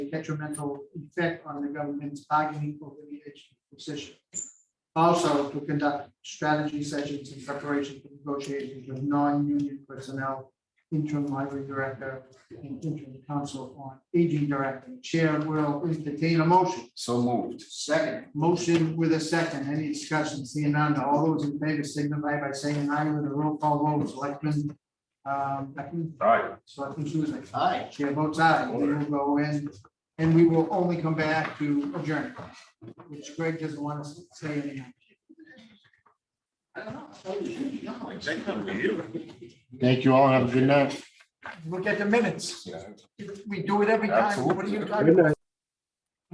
a detrimental effect on the government's bargaining over the education position. Also, to conduct strategy sessions in preparation for negotiations with non-union personnel, interim library director, and interim council on aging director. Chair will entertain a motion. So moved. Second. Motion with a second. Any discussion? Seeing none. All those in favor signify by saying aye with a roll call vote. Selectman um, Beckman? Aye. Selectman Susan? Aye. Chair votes aye. We will go in and we will only come back to adjourn, which Greg doesn't want us to say anything. Thank you all. Have a good night. Look at the minutes. Yeah. We do it every time. What are you talking about? Absolutely.